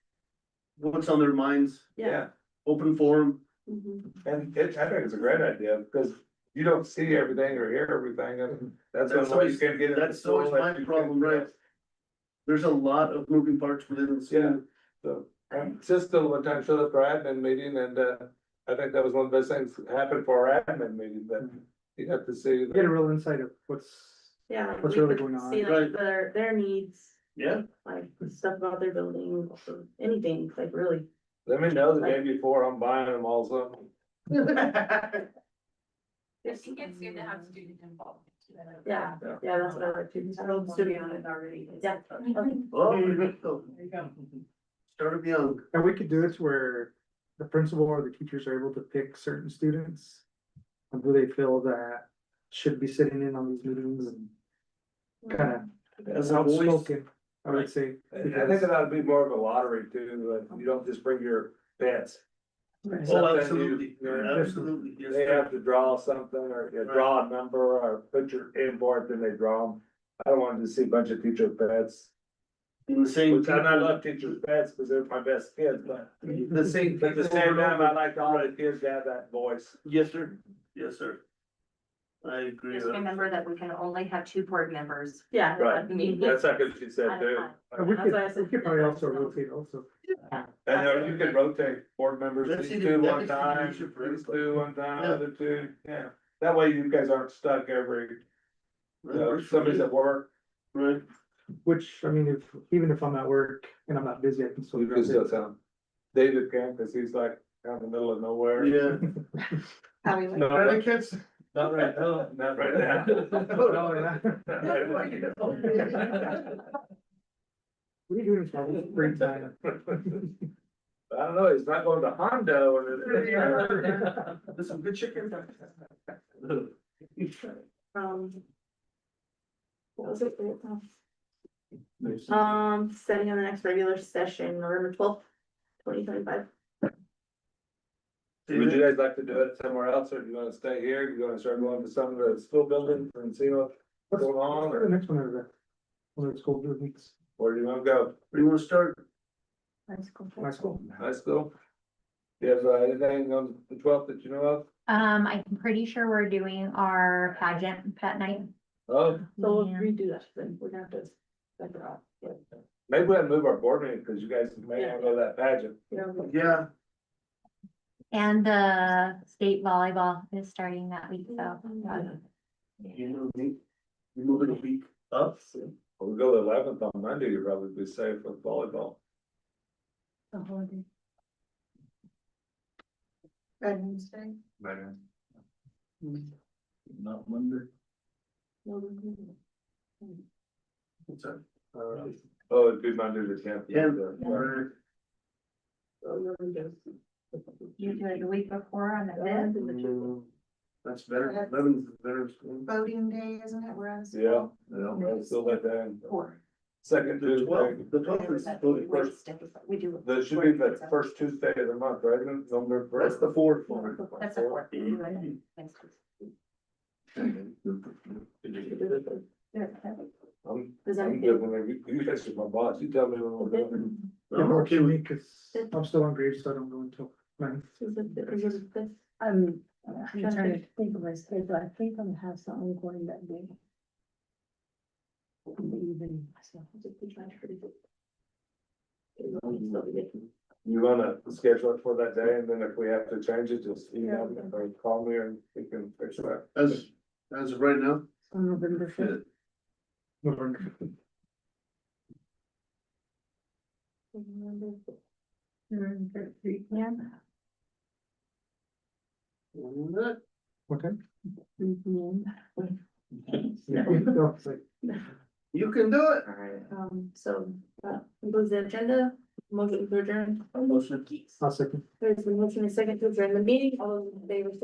what's on their minds, Yeah. open forum. Mhm. And it, I think it's a great idea, because you don't see everything or hear everything, and that's That's one way you always- can get. into that's always school, my that you problem, can- right. There's a lot of moving parts within the Yeah. school. So, um, Sister one time showed up for admin meeting, and, uh, I think that was one of the best things that happened for our admin meeting, but you have to see. get a real insight of what's, Yeah. like What's we really could going on? See Right. like their, their needs, Yeah, like stuff about their building, or anything, like really. Let me know the day before, I'm buying them also. I think it's good to have student involvement. Yeah, yeah, that's what I like to. I don't to be on it already. Yeah. okay. oh, there you go. started young. and we could do this where the principal or the teachers are able to pick certain students. and Who they feel that should be sitting in on these meetings and kind of As a voice. outspoken, I would say. And I think that ought to be more of a lottery too, like, you don't just bring your bets. Oh, Something you- absolutely, Yeah. absolutely, yes, They sir. have to draw something or you know, draw a number or put your inboard, then they draw them. I don't want to see a bunch of teacher bets. In the same. Which I I love teacher bets because they're my best kids, but The same. at the same time, I like all the kids to have that voice. Yes, sir, yes, sir. I agree. Just with- remember that we can only have two board members. Yeah. Right. That's like what she said too. And we That's could, why I said- we could probably also rotate also. And uh, you could rotate board members, That's these either- two that one is the time, leadership for these everybody. two one time, Yeah. other two, yeah. That way you guys aren't stuck every, you That know, works for somebody's me. at work. Right, Which, I mean, if, even if I'm at work and I'm not busy, I can So still. you can rotate. still tell him. David can, cause he's like out in the middle of nowhere. yeah. No, Right, not- kids? not right now, not right now. Oh, No, no, no. Not right now. What are you doing in my free time? I don't know, he's not going to Hondo or. There's some good chicken. Um. What was it? Um, setting on the next regular session, November twelfth, twenty twenty five. Would you guys like to do it somewhere else, or do you wanna stay here, you wanna start going to some of the school buildings and see what's What's going on, what's the or next one over there? One of the school buildings, where do you wanna go, We wanna start, high school. high school? Do you have uh, anything on the twelfth that you know of? Um, I'm pretty sure we're doing our pageant pet night. Oh, So we'll Yeah. redo that, then we're gonna have to. separate out, yeah. maybe we'll move our board meeting, cause you guys may wanna go to that pageant. You know, yeah, And the state volleyball is starting that week, so. Yeah. you know, we, we move it a week up, We'll go the eleventh on Monday, you'll probably be safe with volleyball. Not Monday. What's that? Uh, Oh, it'd be Monday the tenth. Yeah. Yeah. so you're gonna do- You do it the week before on the fifth. Mm, That's better, eleven's better. school. Voting day, isn't it? We're on. Yeah, yeah, I still let that in. Second The Tuesday, twelfth, the twelfth is voting first, We do. that should be the first Tuesday of the month, right, November that's first. the fourth one. That's a a four. four. I'm, Does that I'm feel- good when you, you guys are my boss, you tell me when we're done. Yeah, I'm work okay for with, me, cause I'm still on grade, so I don't go until nine. Is it, is it this? I'm, I'm That's trying to think of my schedule, I think I'm gonna have something going that day. In the evening, so. You wanna schedule it for that day, and then if we have to change it, just email me or call me and we can fix that. as, as of right now, So November fifth. November. Yeah. Okay. Mhm. Yeah, no, it's like, you can do it. Alright, um, so, uh, concludes the agenda, motion to adjourn. I'm motioning. I'll second. There's a motion and second to adjourn the meeting, all those in favor say